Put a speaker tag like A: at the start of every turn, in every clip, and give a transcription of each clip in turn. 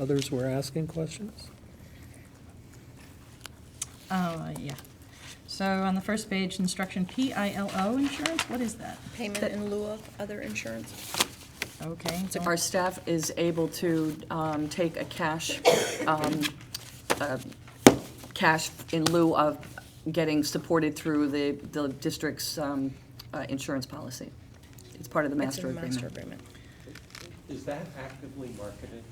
A: others were asking questions?
B: Uh, yeah. So on the first page, instruction PILO insurance, what is that?
C: Payment
D: That-
C: in lieu of other insurance?
B: Okay.
D: It's if our staff is able to um, take a cash, um, uh, cash in lieu of getting supported through the, the district's um, uh, insurance policy. It's part of the
C: It's
D: master
C: in the master
D: agreement.
C: agreement.
E: Is that actively marketed?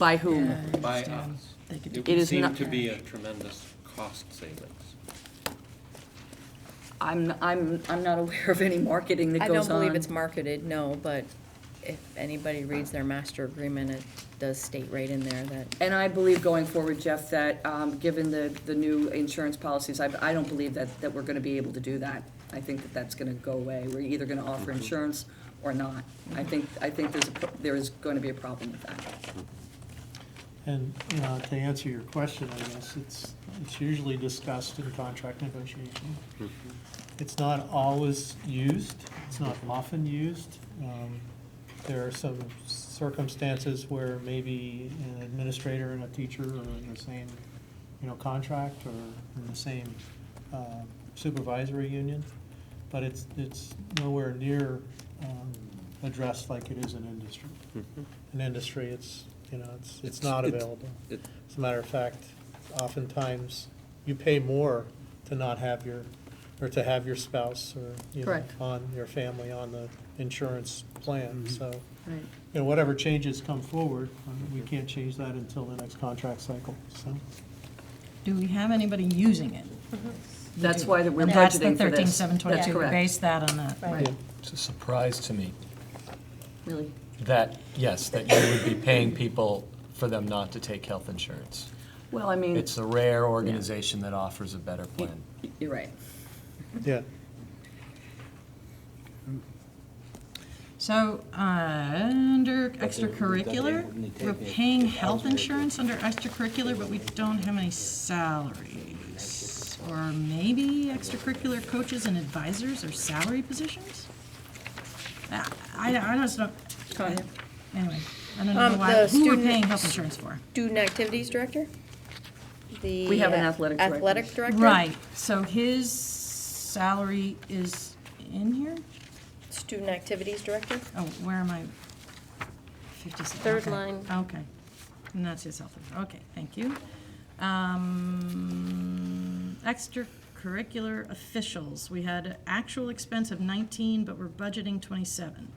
D: By
B: Yeah,
D: whom?
B: I
E: By
B: understand.
E: us.
B: They could
E: It
B: do-
D: It
E: would
D: is
E: seem
D: not-
E: to be a tremendous cost savings.
D: I'm, I'm, I'm not aware of any marketing that
C: I
D: goes
C: don't
D: on.
C: believe it's marketed, no, but if anybody reads their master agreement, it does state right in there that
D: And I believe going forward, Jeff, that um, given the, the new insurance policies, I, I don't believe that, that we're going to be able to do that. I think that that's going to go away. We're either going to offer insurance or not. I think, I think there's, a pro- there is going to be a problem with that.
F: And uh, to answer your question, I guess, it's, it's usually discussed in contract negotiation. It's not always used, it's not often used. Um, There are some circumstances where maybe an administrator and a teacher are in the same, you know, contract or in the same uh, supervisory union, but it's, it's nowhere near um, addressed like it is in industry. In industry, it's, you know, it's, it's
E: Mm-hmm. It's-
F: not
E: it's-
F: available.
E: it-
F: As a matter of fact, oftentimes, you pay more to not have your, or to have your spouse or, you know,
D: Correct.
F: on, your family on the insurance plan, so,
D: Right.
F: you know, whatever changes come forward, um, we can't change that until the next contract cycle, so.
B: Do we have anybody using it? We
D: That's
B: do.
D: why that we're
B: And that's
D: budgeting for
B: the
D: this.
B: 13,722.
D: That's correct.
B: Base that on that.
F: yeah.
G: It's a surprise to me
D: Really?
G: that, yes, that you would be paying people for them not to take health insurance.
D: Well, I mean,
G: It's a rare organization that offers a better plan.
D: you're right.
F: Yeah.
B: So, uh, under extracurricular, we're paying health insurance under extracurricular, but we don't have any salaries. Or maybe extracurricular coaches and advisors are salary positions? I, I I just don't,
D: Tanya?
B: anyway, I don't know
C: Um,
B: why,
C: the
B: who we're
C: student-
B: paying health insurance for.
C: Student Activities Director? The
D: We have an
C: uh,
D: athletic director.
C: Athletic Director?
B: Right, so his salary is in here?
C: Student Activities Director?
B: Oh, where am I? 56.
H: Third
B: okay,
H: line.
B: Okay. And that's his health insurance. Okay, thank you. Um, Extracurricular officials, we had an actual expense of 19, but we're budgeting 27.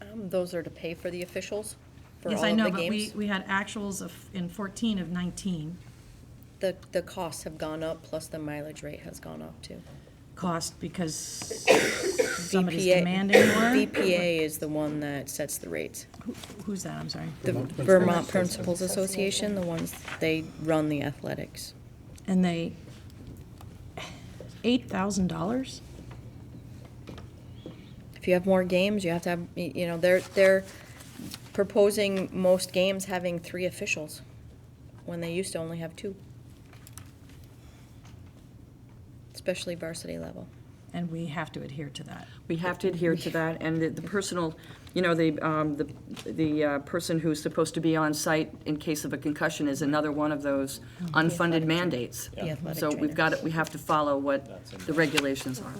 C: Um, Those are to pay for the officials for all
B: Yes,
C: of
B: I know,
C: the
B: but we,
C: games?
B: we had actuals of, in 14 of 19.
C: The, the costs have gone up, plus the mileage rate has gone up too.
B: Cost because somebody's
C: VPA
B: demanding more.
C: VPA is the one that sets the rates.
B: Who's that? I'm sorry.
C: The Vermont Principals Association, the ones, they run the athletics.
B: And they, $8,000?
C: If you have more games, you have to have, y- you know, they're, they're proposing most games having three officials, when they used to only have two. Especially varsity level.
B: And we have to adhere to that.
D: We have to adhere to that, and the- the personal, you know, the, um, the the uh, person who's supposed to be on site in case of a concussion is another one of those
B: Oh,
D: unfunded mandates.
C: The athletic
D: So
C: trainer.
D: we've got, to- we have to follow what the regulations are.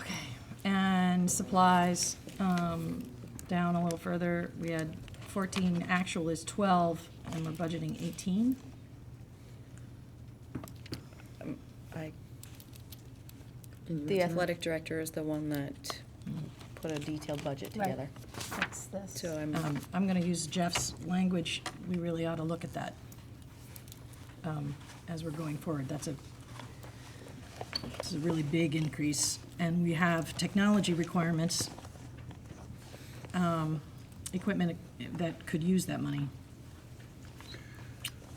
B: Okay, and supplies, um, down a little further, we had fourteen, actual is twelve, and we're budgeting eighteen.
C: I, the athletic director is the one that put a detailed budget
H: Right.
C: together.
H: That's this.
C: So I'm,
B: Um, I'm gonna use Jeff's language, we really ought to look at that, um, as we're going forward, that's a, it's a really big increase, and we have technology requirements, um, equipment that could use that money.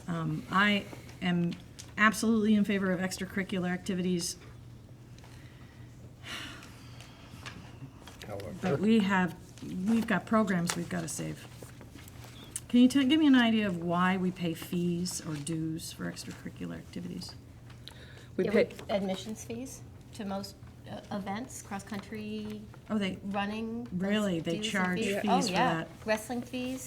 B: Um, I am absolutely in favor of extracurricular activities. But we have, we've got programs we've got to save. Can you tell, give me an idea of why we pay fees or dues for extracurricular activities?
D: We
H: Yeah,
D: pay,
H: with Admissions fees to most uh, events, cross-country,
B: Oh, they,
H: running. those
B: Really? They
H: dues and
B: charge fees for
H: Oh, yeah.
B: that?
H: Wrestling fees.